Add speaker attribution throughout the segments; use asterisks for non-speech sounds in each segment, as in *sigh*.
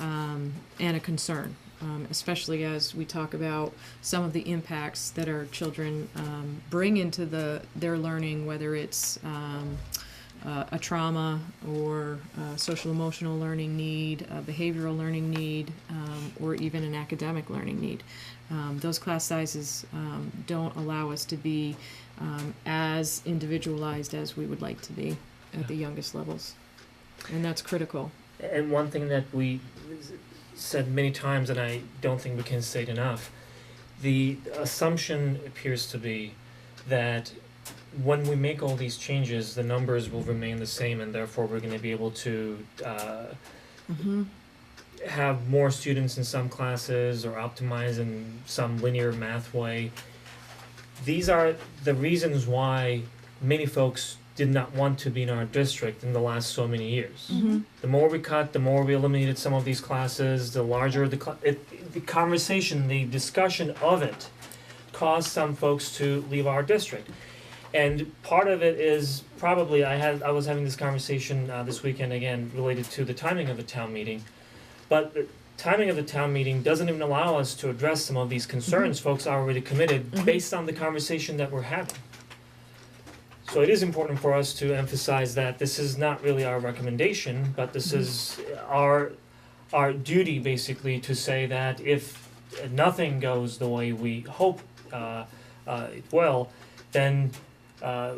Speaker 1: um, and a concern, um, especially as we talk about some of the impacts that our children um, bring into the their learning, whether it's um, uh, a trauma or uh, social emotional learning need, a behavioral learning need, um, or even an academic learning need. Um, those class sizes um, don't allow us to be um, as individualized as we would like to be at the youngest levels, and that's critical.
Speaker 2: And one thing that we s- said many times, and I don't think we can say it enough, the assumption appears to be that when we make all these changes, the numbers will remain the same, and therefore we're going to be able to uh,
Speaker 1: Mm-hmm.
Speaker 2: have more students in some classes or optimize in some linear math way. These are the reasons why many folks did not want to be in our district in the last so many years
Speaker 1: Mm-hmm.
Speaker 2: the more we cut, the more we eliminated some of these classes, the larger the cl- it, the conversation, the discussion of it caused some folks to leave our district. And part of it is probably I had I was having this conversation uh, this weekend again related to the timing of the town meeting, but the timing of the town meeting doesn't even allow us to address some of these concerns folks are already committed
Speaker 1: Mhm.
Speaker 2: based on the conversation that we're having. So it is important for us to emphasize that this is not really our recommendation, but this is our our duty basically to say that if nothing goes the way we hope uh uh it will, then uh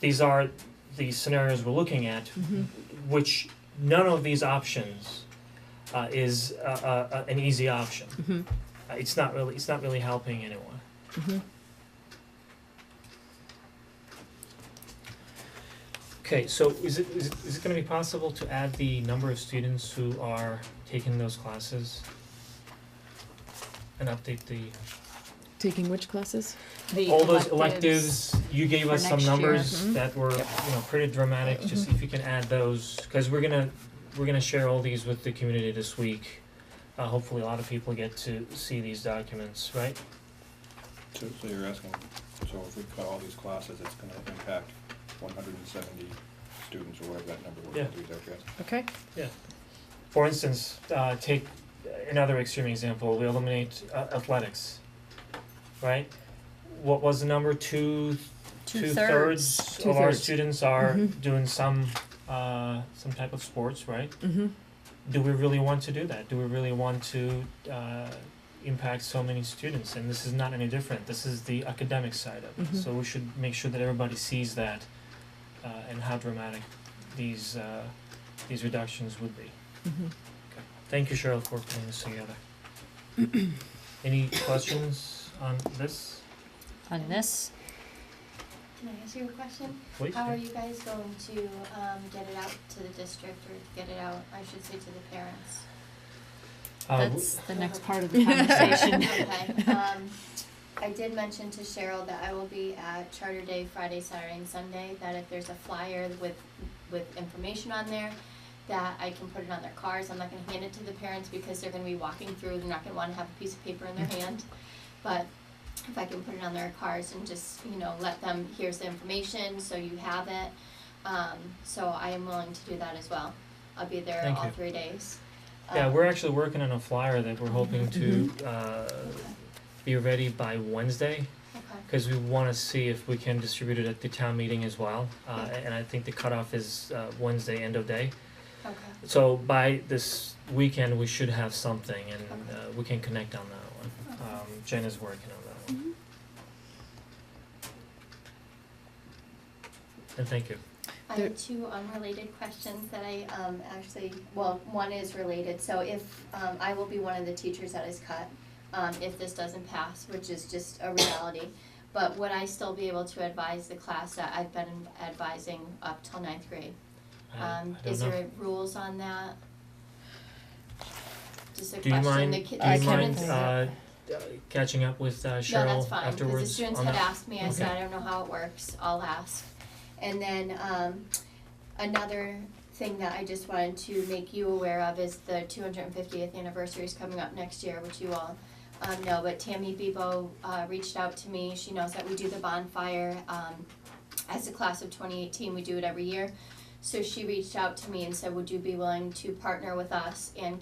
Speaker 2: these are the scenarios we're looking at,
Speaker 1: Mhm.
Speaker 2: which none of these options uh is uh, uh uh, an easy option.
Speaker 1: Mhm.
Speaker 2: Uh, It's not really it's not really helping anyone.
Speaker 1: Mhm.
Speaker 2: Okay, so is it, is it, is it gonna be possible to add the number of students who are taking those classes? And update the,
Speaker 1: Taking which classes?
Speaker 3: The
Speaker 2: all those electives, you gave
Speaker 3: for
Speaker 2: us some
Speaker 3: next year. Mm-hmm.
Speaker 2: numbers
Speaker 1: Mhm.
Speaker 2: that were, you know, pretty dramatic, just if you can add those, cause we're gonna, we're gonna share all these with the community this week. Uh, hopefully a lot of people get to see these documents, right?
Speaker 4: So, so you're asking, so if we cut all these classes, it's gonna impact one hundred and seventy students or whatever that number was,
Speaker 2: Yeah.
Speaker 4: is that what you're asking?
Speaker 1: Okay.
Speaker 2: For instance, uh, take another extreme example, we eliminate uh, athletics, right? What was the number, two two thirds of our
Speaker 1: Two-thirds.
Speaker 2: students are
Speaker 1: Mhm.
Speaker 2: doing some uh some type of sports, right?
Speaker 1: Mm-hmm.
Speaker 2: Do we really want to do that? Do we really want to uh impact so many students? And this is not any different. This is the academic side of it.
Speaker 1: Mhm.
Speaker 2: So we should make sure that everybody sees that uh and how dramatic these uh these reductions would be.
Speaker 1: Mm-hmm.
Speaker 2: Thank you, Cheryl, for putting this together. *clears throat* Any questions on this?
Speaker 3: On this,
Speaker 5: Can I ask you a question?
Speaker 2: Please.
Speaker 5: How are you guys going to um, get it out to the district or get it out, I should say, to the parents?
Speaker 2: Uh, w-
Speaker 3: that's the next part of the conversation.
Speaker 5: *laughs* Okay, um, I did mention to Cheryl that I will be at Charter Day Friday, Saturday, and Sunday, that if there's a flyer with, with information on there, that I can put it on their cars, I'm not gonna hand it to the parents because they're gonna be walking through, they're not gonna wanna have a piece of paper in their
Speaker 1: Mm-hmm.
Speaker 5: hand. But if I can put it on their cars and just, you know, let them, here's the information, so you have it. Um, so I am willing to do that as well, I'll be there
Speaker 2: Thank
Speaker 5: all
Speaker 2: you.
Speaker 5: three days.
Speaker 2: Yeah,
Speaker 5: Um,
Speaker 2: we're actually working on a flyer that we're hoping to uh
Speaker 5: Mm-hmm.
Speaker 2: be ready by Wednesday,
Speaker 5: Okay,
Speaker 2: cause we wanna see if we can distribute it at the town meeting as well. Uh and I think the cutoff is uh Wednesday end of day.
Speaker 5: okay.
Speaker 2: So by this weekend, we should have something and uh we can connect on that one.
Speaker 5: Okay. Mm-hmm.
Speaker 2: Um Jen is working on that one. And thank you.
Speaker 5: I
Speaker 1: There-
Speaker 5: have two unrelated questions that I um actually, well, one is related, so if um I will be one of the teachers that is cut um if this doesn't pass, which is just a reality, but would I still be able to advise the class that I've been advising up till ninth grade?
Speaker 2: I
Speaker 5: Um
Speaker 2: I
Speaker 5: is
Speaker 2: don't know.
Speaker 5: there rules on that? Just a
Speaker 2: Do you
Speaker 5: question,
Speaker 2: mind,
Speaker 5: the
Speaker 2: do
Speaker 5: kid,
Speaker 2: you
Speaker 5: the students.
Speaker 2: mind uh catching up with uh
Speaker 5: No,
Speaker 2: Cheryl
Speaker 5: that's fine, because the
Speaker 2: afterwards
Speaker 5: students
Speaker 2: on
Speaker 5: had
Speaker 2: that?
Speaker 5: asked me, I said,
Speaker 2: Okay.
Speaker 5: I don't know how it works, I'll ask. And then, um, another thing that I just wanted to make you aware of is the two hundred and fiftieth anniversary is coming up next year, which you all um, know, but Tammy Bebo, uh, reached out to me, she knows that we do the bonfire, um, as a class of twenty eighteen, we do it every year. So she reached out to me and said, would you be willing to partner with us and